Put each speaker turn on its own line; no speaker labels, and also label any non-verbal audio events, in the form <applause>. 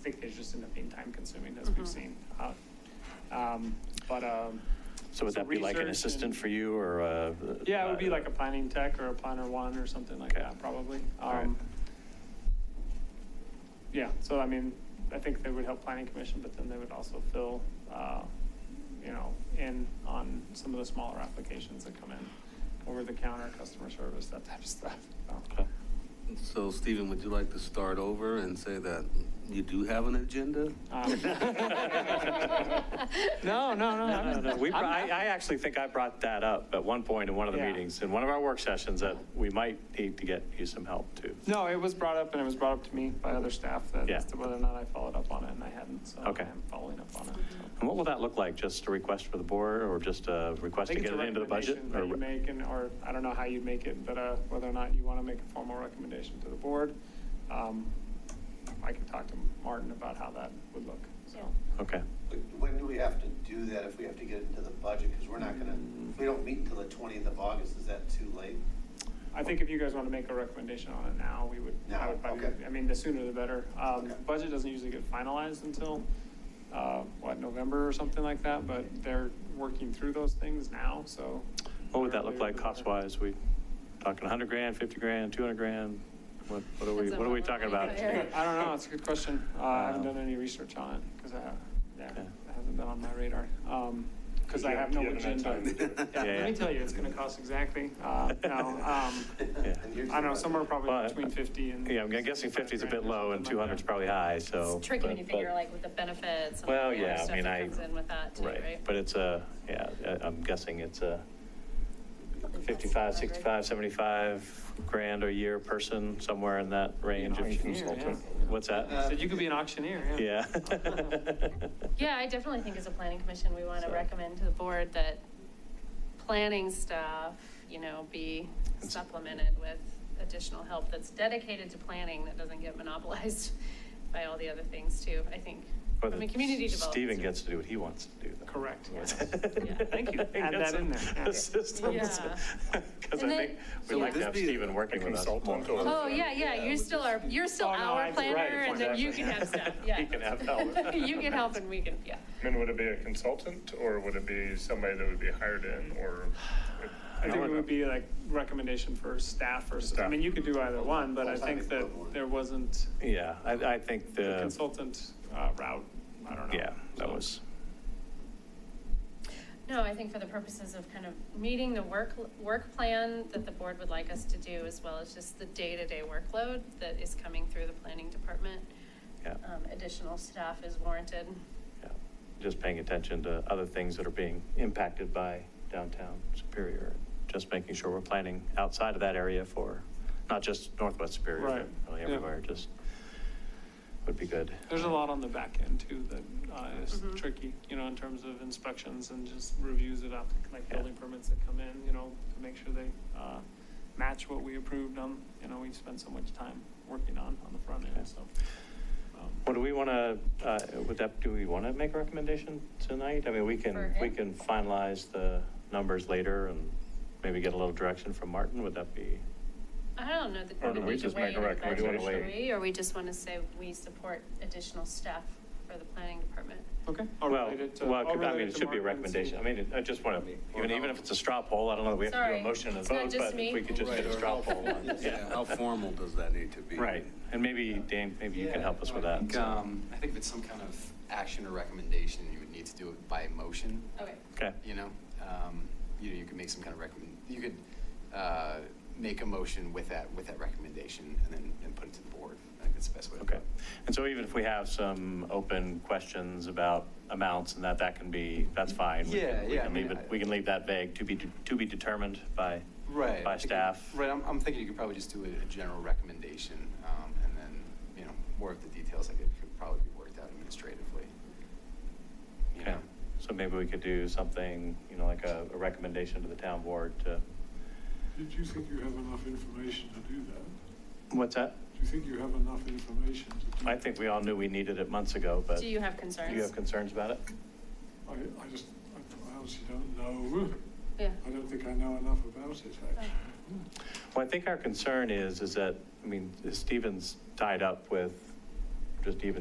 think there's just end up being time consuming, as we've seen. Uh, um, But, um,
So would
So
that be like an
research
assistant
and-
for you or? uh,
yeah, it would be
uh,
like a planning tech or a planner one or something like
Okay.
that, probably.
All right.
Um, Yeah, so I mean, I think they would help planning commission, but then they would also fill, uh, you know, in on some of the smaller applications that come in, over the counter, customer service, that type of stuff. so.
Okay.
So Stephen, would you like to start over and say that you do have an agenda?
Uh, <laughs>
Um, <laughs> No, no, no.
No, no,
I'm-
no. We, br-
I'm
I,
not-
I actually think I brought that up at one point in one of the
Yeah.
meetings, in one of our work sessions, that we might need to get you some help too.
No, it was brought up, and it was brought up to me by other staff, that
Yeah.
as to whether or not I followed up on it, and I hadn't, so
Okay.
I'm following up on it. so.
And what will that look like? Just a request for the board or just a
I
request to
think it's
get
a
it into the budget?
recommendation that you
Or-
make, and, or, I don't know how you make it, but, uh, whether or not you want to make a formal recommendation to the board. Um, I could talk to Martin about how that would look, so.
Okay,
When do we have to do that if we have to get into the budget? Because we're not gonna, if we don't meet until the twentieth of August, is that too late?
I think if you guys want to make a recommendation on it now, we would, I
Now,
would probably,
okay.
I mean, the sooner the better. Um,
Okay.
budget doesn't usually get finalized until, uh, what, November or something like that, but they're working through those things now, so.
what would that look like
Earlier the better.
cost-wise? We talking 100 grand, 50 grand, 200 grand? What what are we,
Depends on
what are we
what
talking
we're
about?
looking
I
at.
don't know, it's a good question. Uh, I haven't
Um,
done any research on it, because I, have- yeah,
Okay.
it hasn't been on my radar. Um 'cause because
You
I have
haven't-
no
you haven't had
agenda.
time to do it.
Yeah,
Yeah,
let me
yeah.
tell you, it's gonna cost exactly, uh, no,
<laughs>
um, I don't know, somewhere
Well,
probably between fifty and.
Yeah, I'm guessing 50 is a bit
65
low
grand or something
and
like
200 is
that.
probably high, so.
It's tricky when
but-
you figure
but-
like with the benefits and all
Well,
the other
yeah, I
stuff
mean, I.
that comes in with that too, right?
But it's a, yeah, I- I'm guessing it's a
I think that's
55,
400.
65, 75 grand a year person, somewhere in that range.
An
if-
auctioneer, yeah. Uh,
What's
So
that?
you could be an auctioneer, yeah.
Yeah.
<laughs>
<laughs>
Yeah, I definitely think as a planning commission, we want to
So-
recommend to the board that planning staff, you know, be supplemented with additional help that's dedicated to planning that doesn't get monopolized <laughs> by all the other things too, I think.
But
From a community development.
Stephen gets to do what he wants to do. though.
Correct, yes.
<laughs>
Yeah.
<laughs> Thank you. Add
That's
that in there. Yeah.
The system. <laughs>
Yeah.
Because I think
And then-
we
So
like
would
to
this
have
be
Stephen
a
working with us.
consultant
more.
or-
Oh, yeah, yeah, you're still our, you're still
Oh, no, I-
our
right,
planner
right,
and then you
exactly.
can
<laughs>
have stuff, yeah.
He can have help.
<laughs> You can help and we can, yeah.
I mean, would it be a consultant or would it be somebody that would be hired in or?
<laughs> I think it would be like recommendation for staff or, I mean, you could do either one, but I think that there wasn't
Yeah, I, I think
the
the,
consultant uh, route, I don't know.
yeah, that
So-
was,
No, I think for the purposes of kind of meeting the work, work plan that the board would like us to do, as well as just the day-to-day workload that is coming through the planning department,
yeah.
um, additional staff is warranted.
Yeah, Just paying attention to other things that are being impacted by downtown Superior. Just making sure we're planning outside of that area for, not just Northwest Superior,
Right,
but really
yeah.
everywhere, just would be good.
There's a lot on the back end too that uh, is
Mhm.
tricky, you know, in terms of inspections and just reviews of applic- like
Yeah.
building permits that come in, you know, to make sure they uh, match what we approved on, you know, we spend so much time working on, on the front
Okay.
end, so. um,
What do we want to, would that, do we want to make a recommendation tonight? I mean, we
For
can,
him?
we can finalize the numbers later and maybe get a little direction from Martin, would that be?
I don't know
Or
that
do
we
we
need to
just make
weigh
a
in about
recommendation?
it,
Do you wanna
should
weigh?
we? or we just want to say we support additional staff for the planning department.
Okay. I'll
Well,
relate it to-
well,
I'll
I
relate
mean, it
to
should be a
Mark and see.
recommendation. I mean, I just want to, even, even if it's a straw poll, I don't know that we have to do
Sorry.
a motion and
It's not
vote,
just
but
me.
if we could just get a straw poll. on it.
Yeah, How formal does that need to be?
Right, and maybe, Dan, maybe you can
Yeah,
help us with
I
that.
think, um, I think if it's some kind of action or recommendation, you would need to do it by motion,
Okay.
Okay,
you know? Um, You know, you could make some kind of recommend, you could uh, make a motion with that, with that recommendation and then, and put it to the board. I think that's the best way to do
okay.
it.
And so even if we have some open questions about amounts and that, that can be, that's fine. We can-
Yeah,
we
yeah,
can
I mean,
leave it-
I-
We can leave that vague, to be, to be determined by,
Right.
by
I think-
staff.
Right, I'm, I'm thinking you could probably just do a, a general recommendation, um, and then, you know, more of the details, like it could probably be worked out administratively. You
Okay,
know?
so maybe we could do something, you know, like a, a recommendation to the town board to,
Did you think you have enough information to do that?
what's that?
Do you think you have enough information to do?
I think we all knew we needed it months ago, but.
Do you have concerns?
Do you have concerns about it?
I, I just, I- I honestly don't know.
Yeah.
I don't think I know enough about it, actually.
Well, I think our concern is, is that, I mean, Stephen's tied up with just even